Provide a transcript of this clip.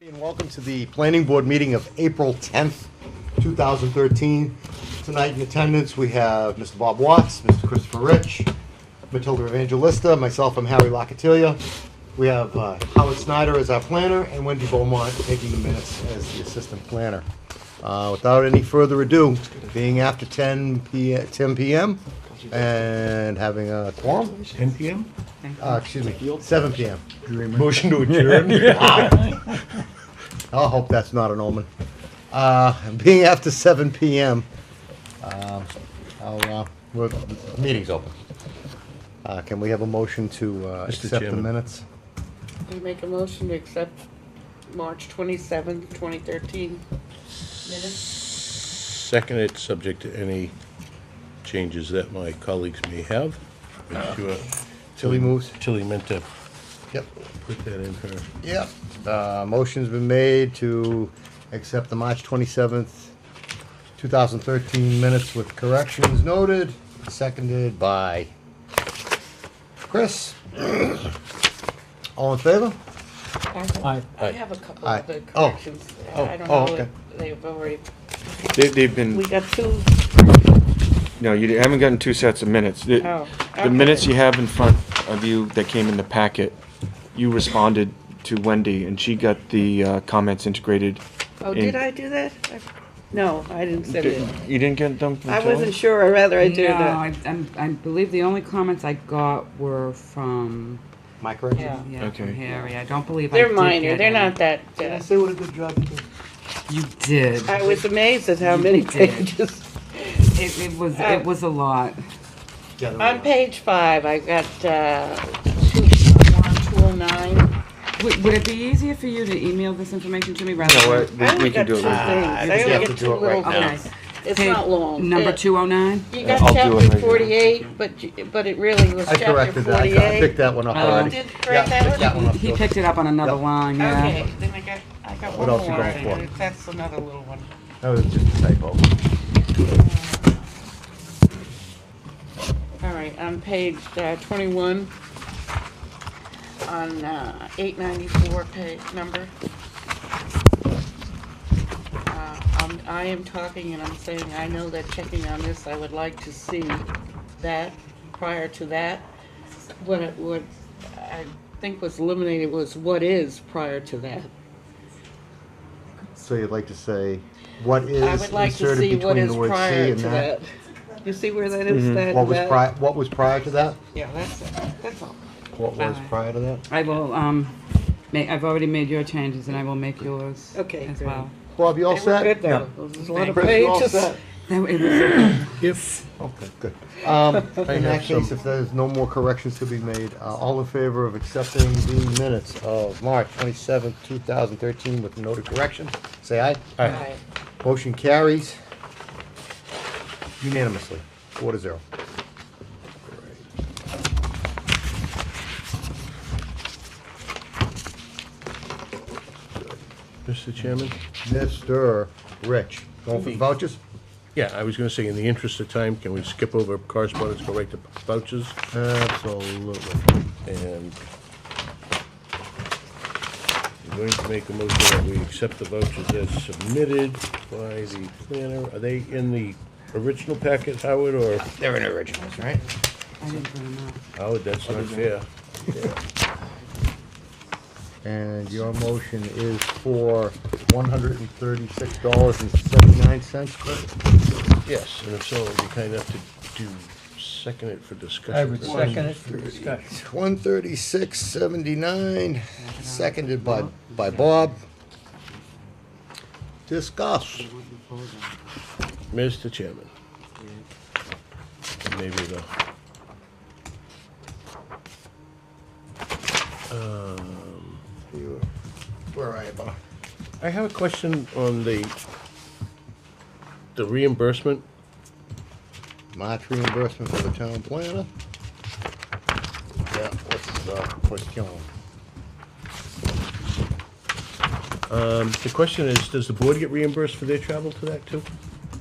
And welcome to the planning board meeting of April 10th, 2013. Tonight in attendance, we have Mr. Bob Watts, Mr. Christopher Rich, Matilda Evangelista, myself, I'm Harry Locatilia. We have uh, Howard Snyder as our planner and Wendy Beaumont taking the minutes as the assistant planner. Uh, Without any further ado, being after 10 p. 10 PM and having a quorum, 10 PM? uh, excuse me, 7 PM. Motion to adjourn? I hope that's not an omen. Uh, being after seven PM, um, I'll, uh, we're, the meeting's open. Uh, can we have a motion to, uh, Mr. accept the Chairman. minutes? I make a motion to accept March twenty-seventh, twenty thirteen minutes. Second it, subject to any changes that my colleagues may have. Make sure- Tilly moves? Tilly meant to Yep. put that in her. Yep. Uh, motion's been made to accept the March twenty-seventh, two thousand thirteen minutes with corrections noted, seconded by Chris. All in favor? I Aye. have a couple Aye. of the Oh. corrections. Oh, I don't oh, know okay. if They've already, They, they've been, we got two, no, you haven't gotten two sets of minutes. The, Oh, the minutes okay. you have in front of you that came in the packet, you responded to Wendy, and she got the uh, comments integrated. oh, in- did I do that? I- No, I didn't send Did- it. You didn't get them from I wasn't Tilly? sure, I'd rather I do no, that. I, I'm, I believe the only comments I got were from My correction? Yeah. yeah, Okay. from Harry. I don't believe I They're did minor, get they're any. not that, Did I uh, say what a good job you did? You did. I was amazed at how many You did. pages. it, it was I- it was a lot. Yeah, there On we go. page five, I got, uh, two, one, two oh nine. Would, would it be easier for you to email this information to me rather No, than? I I- we- only we got can two do things, it. later. Ah, I you only have got to two do it right little now. things. It's Hey, not long. Number It- two oh nine. You got I'll do it right chapter now. forty-eight, but, you- but it really was I chapter corrected that, I picked forty-eight. that one up Oh. already. Did Greg Yeah, that picked one? that one up. He too. picked it up on another Yep. line. Yeah. Okay, then I got, I got What one else you more, got for? and that's another little one. That was just a typo. All right, on page uh, twenty-one, on, uh, eight ninety-four page number. Uh, I'm, I am talking and I'm saying, I know that checking on this, I would like to see that, prior to that. What it, what I think was eliminated was what is prior to that. So you'd like to say, what I is would like to inserted see what between is the word C prior and to that? Mm-hmm. that. You see where that is, that, What was that? prior, what was prior to that? Yeah, that's it, that's all. What was Bye. prior to that? I will. Um, make, I've already made your changes, and I will make yours. Okay, As good. well. Bob, you all They were set? good though. There's a lot of Chris, you all pages. set? That it was, If, Okay, good. Um, in that have some- case, if there's no more corrections to be made, uh, all in favor of accepting the minutes of March twenty-seventh, two thousand thirteen with noted correction, say aye. Aye. Motion carries unanimously, four to zero. Mr. Chairman? Mr. Rich, going for the vouchers? Yeah, I was gonna say, in the interest of time, can we skip over correspondence, go right to vouchers? Absolutely. And I'm going to make a motion that we accept the vouchers as submitted by the planner. Are they in the original packet, Howard, or? They're in originals, right? I didn't put them up. Howard, that's not fair. And your motion is for one hundred and thirty-six dollars and seventy-nine cents, Yes, and if so, it'd be kind enough to do, second it for discussion. I would second it for discussion. One thirty-six seventy-nine, seconded by, by Bob. Discuss. Mr. Chairman. Maybe the. Um, Where are you, Bob? I have a question on the, the reimbursement. March reimbursement for the town planner. Yeah, what's, uh, what's killing? Um, The question is, does the board get reimbursed for their travel to that too?